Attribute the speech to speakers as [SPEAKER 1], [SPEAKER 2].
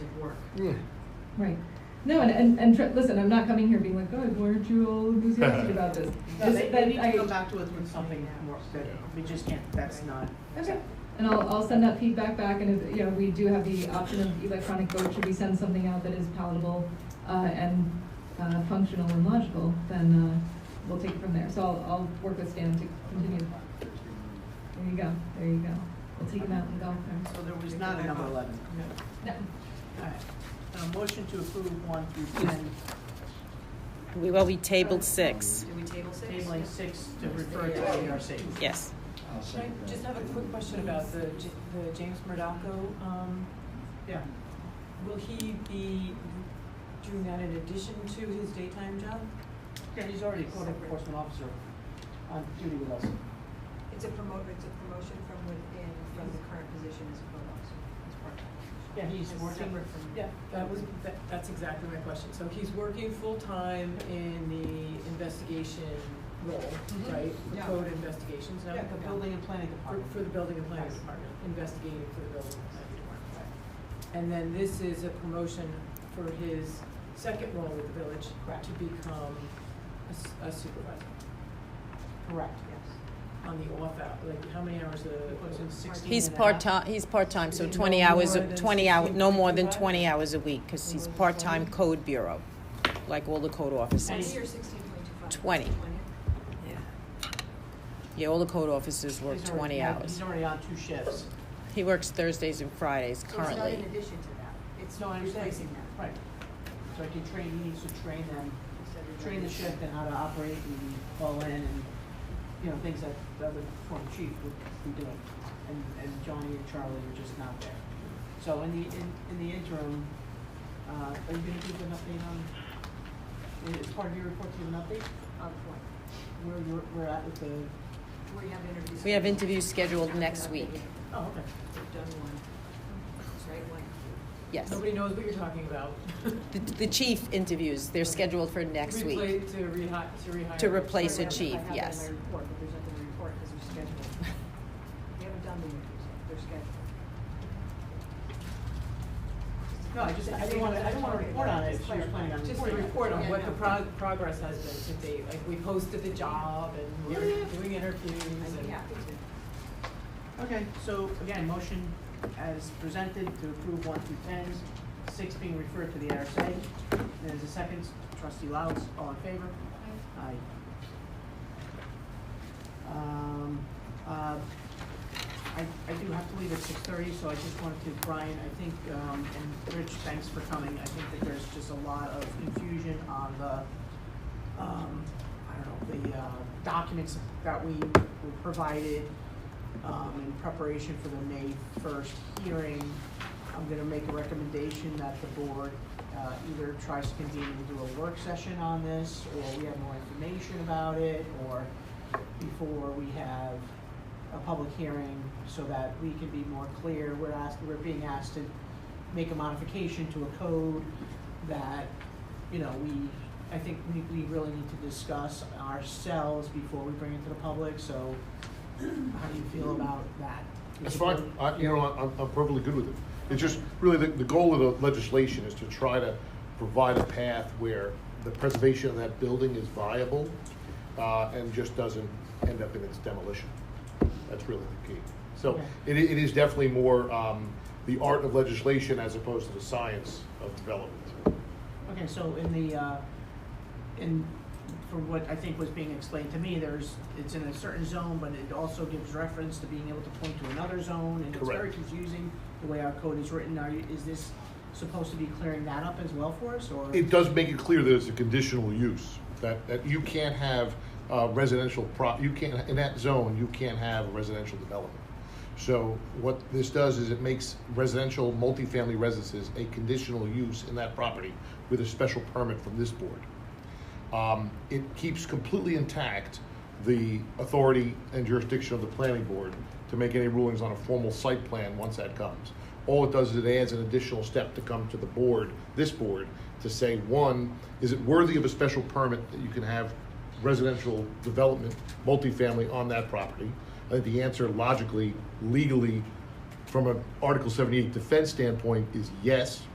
[SPEAKER 1] work.
[SPEAKER 2] Yeah.
[SPEAKER 3] Right. No, and, and, and tr- listen, I'm not coming here being like, God, weren't you all enthusiastic about this?
[SPEAKER 1] No,
[SPEAKER 3] This-
[SPEAKER 1] they,
[SPEAKER 3] that
[SPEAKER 1] they need
[SPEAKER 3] I-
[SPEAKER 1] to go back to us with something more, that we just can't, that's not.
[SPEAKER 3] Okay, and I'll, I'll send that feedback back, and if, you know, we do have the option of electronic vote, should we send something out that is palatable, uh, and, uh, functional and logical, then, uh, we'll take it from there, so I'll, I'll work with Stan to continue. There you go, there you go, we'll take him out and go there.
[SPEAKER 1] So there was not a number eleven.
[SPEAKER 3] No.
[SPEAKER 1] All right. Uh, motion to approve one through ten,
[SPEAKER 4] We, well, we tabled six,
[SPEAKER 5] Did we table six?
[SPEAKER 1] tabling six to refer to E ARC.
[SPEAKER 4] yes.
[SPEAKER 2] I'll
[SPEAKER 5] Can
[SPEAKER 2] second
[SPEAKER 5] I
[SPEAKER 2] that.
[SPEAKER 5] just have a quick question about the, J- the James Murdocco, um,
[SPEAKER 1] Yeah.
[SPEAKER 5] will he be doing that in addition to his daytime job?
[SPEAKER 1] Yeah, he's already a code enforcement officer on duty with us.
[SPEAKER 6] It's a promote, it's a promotion from within, from the current position as a code officer, as part-time.
[SPEAKER 1] Yeah, he's
[SPEAKER 6] It's
[SPEAKER 1] working.
[SPEAKER 6] separate from-
[SPEAKER 5] Yeah, that was, that, that's exactly my question. So he's working full-time in the investigation role,
[SPEAKER 6] Mhm.
[SPEAKER 5] right? The
[SPEAKER 6] Yeah.
[SPEAKER 5] code investigations, now
[SPEAKER 1] Mm-hmm. Yeah, the building and planning
[SPEAKER 5] For,
[SPEAKER 1] department.
[SPEAKER 5] for the building and planning
[SPEAKER 1] Yes.
[SPEAKER 5] department, investigating for the building and planning department. right. And then this is a promotion for his second role with the village
[SPEAKER 1] Correct.
[SPEAKER 5] to become a s- a supervisor
[SPEAKER 1] Correct,
[SPEAKER 5] on the off hour, like how many hours
[SPEAKER 1] yes. He puts in
[SPEAKER 5] a?
[SPEAKER 1] 16
[SPEAKER 4] He's
[SPEAKER 1] and a half.
[SPEAKER 4] part-time, he's part-time, so
[SPEAKER 5] No
[SPEAKER 4] twenty hours,
[SPEAKER 5] more
[SPEAKER 4] a-
[SPEAKER 5] than
[SPEAKER 4] twenty hour, no more than
[SPEAKER 5] 16.55?
[SPEAKER 4] twenty hours a week, because he's part-time code bureau, like all the code officers.
[SPEAKER 6] Twenty or sixteen point two five?
[SPEAKER 4] Twenty. Yeah, all the code officers work
[SPEAKER 1] He's already-
[SPEAKER 4] twenty
[SPEAKER 1] yeah,
[SPEAKER 4] hours.
[SPEAKER 1] He's already on two shifts.
[SPEAKER 4] He works Thursdays and Fridays
[SPEAKER 6] So it's not in
[SPEAKER 4] currently.
[SPEAKER 6] addition to that, it's
[SPEAKER 1] No, I
[SPEAKER 6] not
[SPEAKER 1] understand.
[SPEAKER 6] replacing that.
[SPEAKER 1] Right. So I can train, he needs to train them,
[SPEAKER 6] Instead of
[SPEAKER 1] train the
[SPEAKER 6] replacing-
[SPEAKER 1] shift and how to operate and fall in and, you know, things that the other former chief would be doing. And, and Johnny and Charlie are just not there. So in the, in, in the interim, uh, are you gonna give an update on, as part of your report, do you have an update?
[SPEAKER 6] On point,
[SPEAKER 1] Where we're, we're at with the,
[SPEAKER 6] we have interviews.
[SPEAKER 4] We have
[SPEAKER 6] scheduled.
[SPEAKER 4] interviews scheduled
[SPEAKER 6] Haven't
[SPEAKER 4] next
[SPEAKER 6] updated.
[SPEAKER 4] week,
[SPEAKER 1] oh, okay.
[SPEAKER 6] We've done one, It's right one.
[SPEAKER 4] yes.
[SPEAKER 5] Nobody knows what you're talking about.
[SPEAKER 4] The, the chief interviews, they're scheduled for next week.
[SPEAKER 5] Repla- To rehi, to rehire.
[SPEAKER 4] To replace
[SPEAKER 6] Sorry,
[SPEAKER 4] a
[SPEAKER 6] I have-
[SPEAKER 4] chief,
[SPEAKER 6] I have it in my
[SPEAKER 4] yes.
[SPEAKER 6] report, but there's nothing to report because they're scheduled. We haven't done the interviews yet, they're scheduled.
[SPEAKER 1] No, I just, I didn't wanna, I don't wanna report on it, if she was planning on reporting.
[SPEAKER 5] Just a
[SPEAKER 1] on it.
[SPEAKER 5] report on
[SPEAKER 6] Yeah,
[SPEAKER 5] what
[SPEAKER 6] no.
[SPEAKER 5] the prog- progress has been to date, like we posted the job and we're doing interviews
[SPEAKER 6] I'd
[SPEAKER 5] and.
[SPEAKER 6] be happy to.
[SPEAKER 1] Okay, so again, motion as presented to approve one through ten, six being referred to the RSA. There's a second, trustee Louds, all in favor? Aye. Um, uh, I, I do have to leave at six thirty, so I just wanted to, Brian, I think, um, and Rich, thanks for coming. I think that there's just a lot of confusion on the, um, I don't know, the, uh, documents that we were provided, um, in preparation for the May first hearing. I'm gonna make a recommendation that the board, uh, either tries to convene and do a work session on this, or we have more information about it, or before we have a public hearing, so that we can be more clear. We're asked, we're being asked to make a modification to a code that, you know, we, I think we, we really need to discuss ourselves before we bring it to the public, so how do you feel about that?
[SPEAKER 7] That's fine, I, you know, I'm, I'm perfectly good with it. It's just, really, the, the goal of the legislation is to try to provide a path where the preservation of that building is viable, uh, and just doesn't end up in its demolition. That's really the key. So,
[SPEAKER 1] Okay.
[SPEAKER 7] it, i- it is definitely more, um, the art of legislation as opposed to the science of development.
[SPEAKER 1] Okay, so in the, uh, in, from what I think was being explained to me, there's, it's in a certain zone, but it also gives reference to being able to point to another zone, and it's very
[SPEAKER 7] Correct.
[SPEAKER 1] confusing the way our code is written. Are you, is this supposed to be clearing that up as well for us, or?
[SPEAKER 7] It does make it clear that it's a conditional use, that, that you can't have uh, residential pro, you can't, in that zone, you can't have a residential development. So what this does is it makes residential, multifamily residences a conditional use in that property with a special permit from this board. Um, It keeps completely intact the authority and jurisdiction of the planning board to make any rulings on a formal site plan once that comes. All it does is it adds an additional step to come to the board, this board, to say, one, is it worthy of a special permit that you can have residential development, multifamily on that property? I think the answer logically, legally, from an Article seventy-eight defense standpoint is yes,